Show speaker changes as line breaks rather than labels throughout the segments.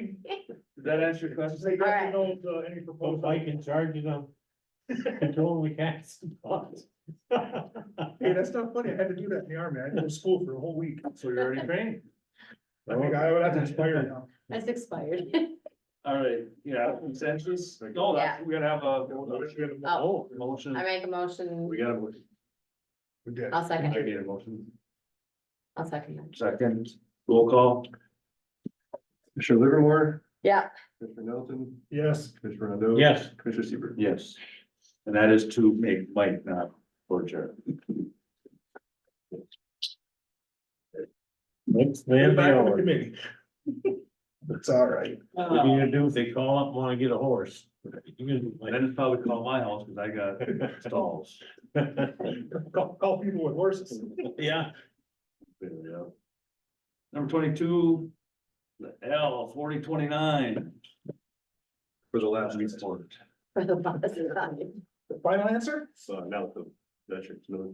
Does that answer your question?
They
Alright.
definitely don't, uh, any proposal.
Oh,
If I can charge it on control the cats.
Hey, that's not funny. I had to do that in the army. I had to go to school for a whole week.
So you're already trained.
I think I would have to expire now.
That's expired.
Mm.
All right, yeah, consensus? No, that's, we gotta have a
Oh.
motion.
I make a motion,
We gotta, motion.
We did.
I'll
I
second,
need a motion.
I'll second that.
Second, roll call. Commissioner Livermore,
Yeah,
Commissioner Nelson,
Yes,
Commissioner Rondo.
Yes,
Commissioner Seaver. Yes. And that is to make Mike not for Jared.
it's
we're
then
back
the
on the
hour.
committee. It's all right.
What do you do if they call up, and wanna get a horse? You
Then it's probably call my house because I got stalls.
can-
Call, call people with horses.
Yeah,
There we go. Number twenty-two, the L forty twenty-nine. For the last Uh, report.
for the bus ride.
The Final answer?
So now the veterans know.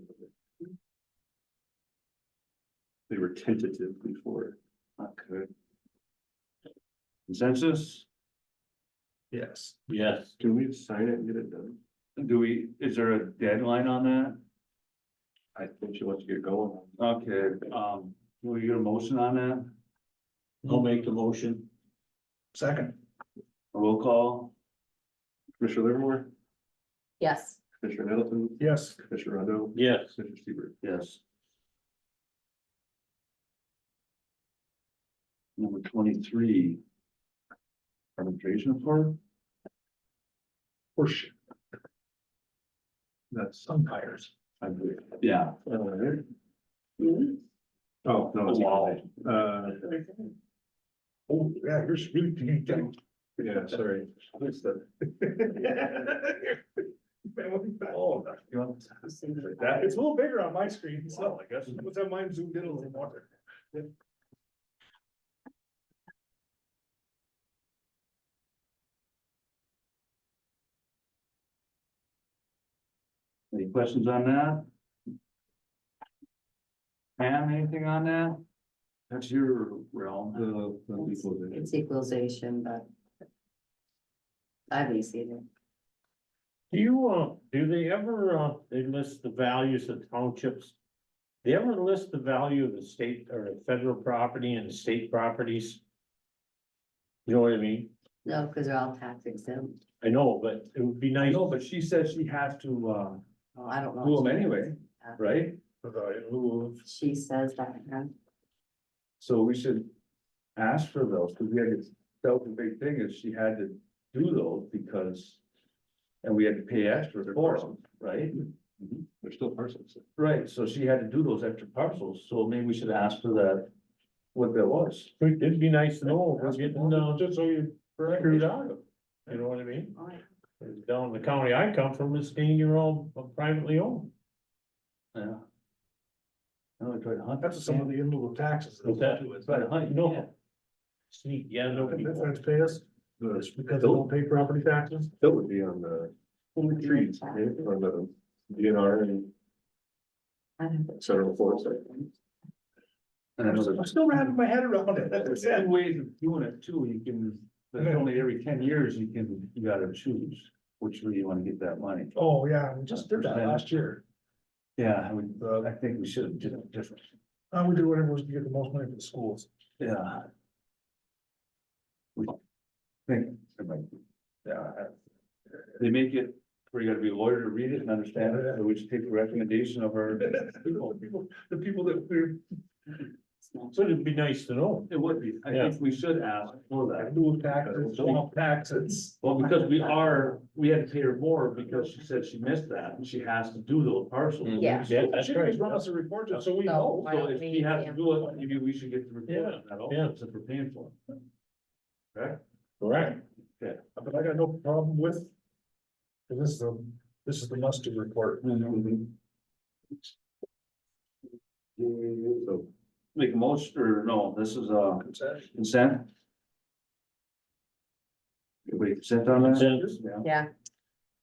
They were tentative before. Not good. Consensus?
Yes.
yes,
Can we sign it and get it done? Do we, is there a deadline on that? I think she wants to get going. Okay, um, will you get a motion on that?
I'll make the motion.
Second.
A roll call? Commissioner Livermore,
Yes,
Commissioner Nettleton,
Yes.
Commissioner Rondo,
Yes,
Commissioner Seaver. Yes. Number twenty-three. Arbitration for,
Horseshoe. That's umpires.
I believe, yeah.
Oh, no, it's-
Wow.
uh,
Oh, yeah, you're really.
yeah, sorry. What's the-
Oh,
That
It's a little bigger on my screen,
Well,
so
I guess.
let's have mine zoomed in a little more.
Any questions on that? Pam, anything on that? That's your realm.
the- the people that-
It's equalization, but. I've seen it.
do you, uh, do they ever, uh, they list the values of townships? They ever list the value of the state or the federal property and the state properties? You know what I mean?
No, because they're all tax exempt.
I know, but it would be nice.
No, but she said she has to, uh,
Oh, I don't know.
do them anyway, right?
The lieu of-
She says that, huh?
So we should ask for those, because we had, to- that was the big thing, is she had to do those because. And we had to pay extra for them, right?
Mm-hmm. They're still parcels.
Right, so she had to do those extra parcels, so maybe we should ask for that, what that was.
It'd be nice to know, if we're getting, uh,
Just so you.
screwed out of it. You know what I mean? Down in the county I come from, it's being your own, uh, privately owned.
Yeah. Now we try to hunt.
That's some of the inland taxes.
What's that?
That's
Try to hunt, no.
Sneak, yeah, no people.
what pay us,
The-
just because they don't pay property taxes.
That would be on the trees, yeah, on the DNR and
I don't know.
federal forest. I think.
And I know
I'm
there's-
still wrapping my head around it, that's what I
There's
said.
two ways of doing it too, you can, there's only every ten years you can, you gotta choose which way you wanna get that money.
Oh, yeah, we just did that last year.
Yeah, I would, uh, I think we should have done it different,
Uh, we did whatever was to get the most money for the schools.
yeah. We think, it might be- yeah. I- uh, They make it, where you gotta be a lawyer to read it and understand it, so we should take the recommendation of our
The people, the people that we're,
So it'd be nice to know.
It would be, I
Yeah.
think we should ask for that,
new taxes, don't taxes.
well, because we are, we had to pay her more because she said she missed that, and she has to do those parcels.
Yeah.
Yeah, that's
Should just
right.
run us a report just so we
So-
know.
Why
So
don't
if
we
he has to
amp
do
it
it,
up?
maybe we should get the report on that
yeah.
also, since we're paying for it. Correct?
Right.
But I got no problem with. and This is the, this is the must do report.
So, Make a motion, or no, this is a
Consent.
consent? Everybody consent on that?
Consent.
Yeah.
yeah,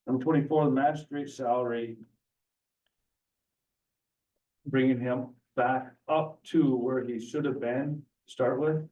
Number twenty-four, the magistrate salary. Bringing him back up to where he should have been, to start with.